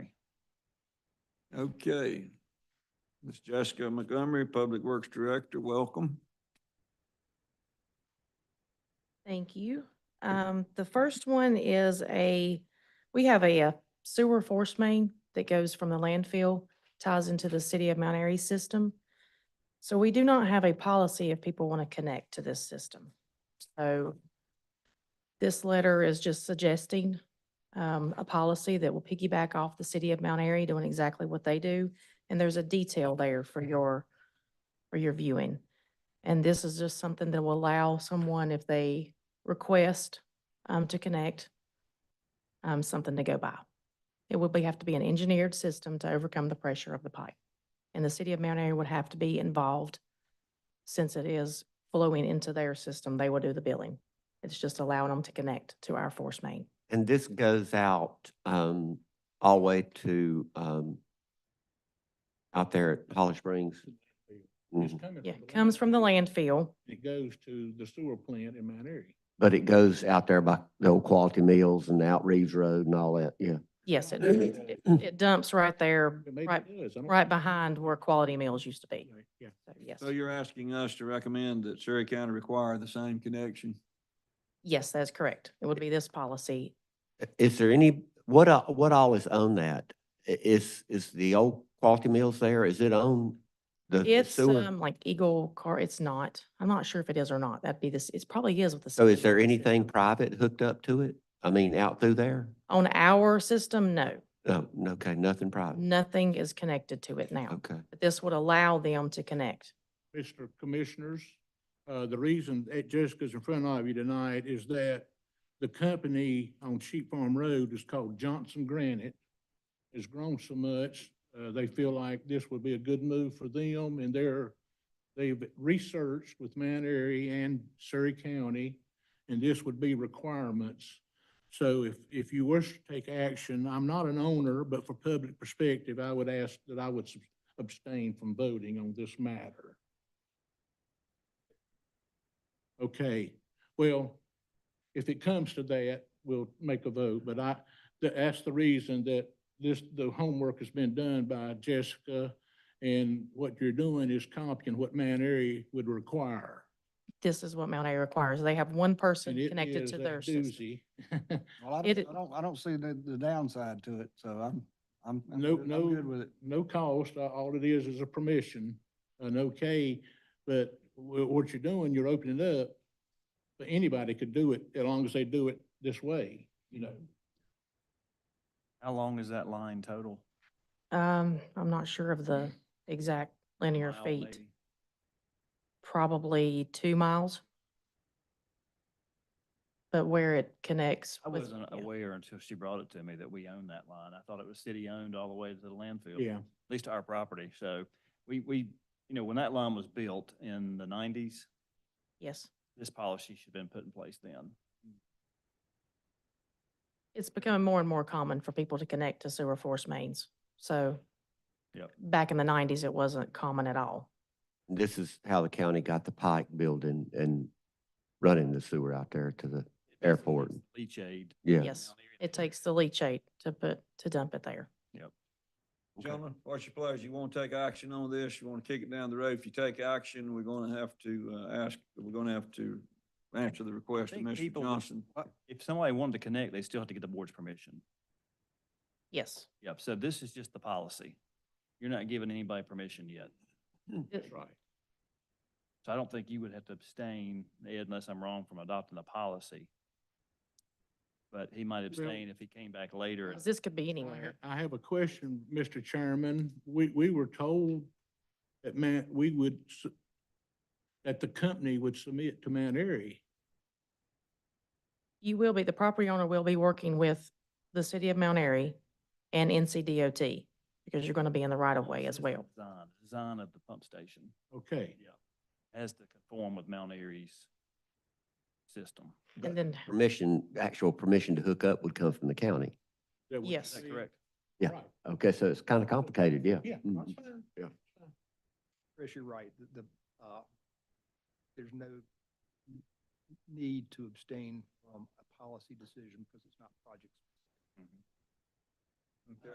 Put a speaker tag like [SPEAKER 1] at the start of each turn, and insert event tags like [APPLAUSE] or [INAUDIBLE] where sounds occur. [SPEAKER 1] Okay. Ms. Jessica Montgomery, Public Works Director, welcome.
[SPEAKER 2] Thank you. Um, the first one is a, we have a uh, sewer force main that goes from the landfill, ties into the city of Mount Airy system. So we do not have a policy if people want to connect to this system. So this letter is just suggesting, um, a policy that will piggyback off the city of Mount Airy doing exactly what they do. And there's a detail there for your, for your viewing. And this is just something that will allow someone, if they request um, to connect, um, something to go by. It would be, have to be an engineered system to overcome the pressure of the pipe. And the city of Mount Airy would have to be involved since it is flowing into their system. They will do the billing. It's just allowing them to connect to our force main.
[SPEAKER 3] And this goes out um all the way to um out there at Holly Springs.
[SPEAKER 4] It's
[SPEAKER 3] Mhm.
[SPEAKER 4] coming
[SPEAKER 2] Yeah,
[SPEAKER 4] from the
[SPEAKER 2] comes from the
[SPEAKER 4] landfill.
[SPEAKER 2] landfill.
[SPEAKER 4] It goes to the sewer plant in Mount Airy.
[SPEAKER 3] But it goes out there by the old Quality Meals and out Reeves Road and all that, yeah.
[SPEAKER 2] Yes, it, it it dumps right there,
[SPEAKER 4] It maybe
[SPEAKER 2] right,
[SPEAKER 4] does. I don't-
[SPEAKER 2] right behind where Quality Meals used to be.
[SPEAKER 4] Anyway, Yeah.
[SPEAKER 2] So, Yes,
[SPEAKER 1] So you're asking us to recommend that Surrey County require the same connection?
[SPEAKER 2] yes, that's correct. It would be this policy
[SPEAKER 3] Is there any, what a- what all is on that? I- Is is the old Quality Meals there? Is it on the- the
[SPEAKER 2] It's
[SPEAKER 3] sewer?
[SPEAKER 2] um like Eagle Car, it's not. I'm not sure if it is or not. That'd be this, it probably is with the.
[SPEAKER 3] So is
[SPEAKER 2] city.
[SPEAKER 3] there anything private hooked up to it? I mean, out through there?
[SPEAKER 2] On our system, no,
[SPEAKER 3] No, okay, nothing private.
[SPEAKER 2] nothing is connected to it now.
[SPEAKER 3] Okay.
[SPEAKER 2] But this would allow them to connect.
[SPEAKER 4] Mr. Commissioners, uh, the reason that Jessica's in front of you tonight is that the company on Sheep Farm Road is called Johnson Granite. Has grown so much, uh, they feel like this would be a good move for them and they're, they've researched with Mount Airy and Surrey County, and this would be requirements. So if, if you wish to take action, I'm not an owner, but for public perspective, I would ask that I would subs- abstain from voting on this matter. Okay, well, if it comes to that, we'll make a vote, but I, th- that's the reason that this, the homework has been done by Jessica, and what you're doing is copying what Mount Airy would require.
[SPEAKER 2] This is what Mount Airy requires. They have one person
[SPEAKER 4] And it
[SPEAKER 2] connected
[SPEAKER 4] is
[SPEAKER 2] to
[SPEAKER 4] a
[SPEAKER 2] their system.
[SPEAKER 4] doozy. [LAUGHS]
[SPEAKER 5] Well, I
[SPEAKER 2] It
[SPEAKER 5] don't,
[SPEAKER 2] i-
[SPEAKER 5] I don't, I don't see the, the downside to it, so I'm, I'm, I'm
[SPEAKER 4] No-
[SPEAKER 5] good-
[SPEAKER 4] no-
[SPEAKER 5] I'm good with it.
[SPEAKER 4] no cost, a- all it is is a permission, an okay, but wh- what you're doing, you're opening up. But anybody could do it, as long as they do it this way, you know.
[SPEAKER 6] How long is that line total?
[SPEAKER 2] Um, I'm not sure of
[SPEAKER 4] [LAUGHS]
[SPEAKER 2] the exact linear
[SPEAKER 6] Mile,
[SPEAKER 2] feet,
[SPEAKER 6] maybe?
[SPEAKER 2] probably two miles. But where it connects.
[SPEAKER 6] I
[SPEAKER 2] with-
[SPEAKER 6] wasn't
[SPEAKER 2] yeah.
[SPEAKER 6] aware until she brought it to me that we own that line. I thought it was city-owned all the way to the landfill.
[SPEAKER 4] Yeah,
[SPEAKER 6] At least our property. So we, we, you know, when that line was built in the nineties,
[SPEAKER 2] Yes.
[SPEAKER 6] this policy should have been put in place then.
[SPEAKER 2] It's becoming more and more common for people to connect to sewer force mains. So
[SPEAKER 6] Yep.
[SPEAKER 2] back in the nineties, it wasn't common at all.
[SPEAKER 3] This is how the county got the Pike building and running the sewer out there to the,
[SPEAKER 6] It basically
[SPEAKER 3] Airport.
[SPEAKER 6] takes the Leach aid.
[SPEAKER 3] yeah.
[SPEAKER 2] Yes, it takes the leachate to put, to dump it there.
[SPEAKER 3] Okay.
[SPEAKER 1] Gentlemen, what's your pleasure? You want to take action on this? You want to kick it down the road? If you take action, we're going to have to uh, ask, we're going to have to answer the request of
[SPEAKER 6] think
[SPEAKER 1] Mr.
[SPEAKER 6] people would-
[SPEAKER 1] Johnson.
[SPEAKER 6] If somebody wanted to connect, they still have to get the board's permission.
[SPEAKER 2] Yes.
[SPEAKER 6] Yep. So this is just the policy. You're not giving anybody permission yet.
[SPEAKER 4] that's right.
[SPEAKER 6] So I don't think you would have to abstain, Ed, unless I'm wrong, from adopting the policy. But he might abstain if he came back later. and-
[SPEAKER 2] This could be
[SPEAKER 4] I
[SPEAKER 2] anywhere.
[SPEAKER 4] ha- I have a question, Mr. Chairman. We, we were told that Mount, we would, s- that the company would submit to Mount Airy.
[SPEAKER 2] You will be, the property owner will be working with the city of Mount Airy and NCDOT because you're going to be in the right of way as well.
[SPEAKER 6] Design, design of the pump station
[SPEAKER 4] Okay,
[SPEAKER 6] has to conform with Mount Airy's system.
[SPEAKER 2] And then,
[SPEAKER 3] Permission, actual permission to hook up would come from the county.
[SPEAKER 4] that would
[SPEAKER 2] Yes.
[SPEAKER 6] Is
[SPEAKER 2] Is
[SPEAKER 6] that
[SPEAKER 4] be-
[SPEAKER 6] correct?
[SPEAKER 3] Yeah.
[SPEAKER 4] Right.
[SPEAKER 3] Okay, so it's kind of complicated, yeah.
[SPEAKER 4] Yeah.
[SPEAKER 3] Mhm.
[SPEAKER 4] that's fine.
[SPEAKER 3] Yeah.
[SPEAKER 7] Chris, you're right, the- the, uh, there's no n- need to abstain from a policy decision because it's not project
[SPEAKER 1] Okay.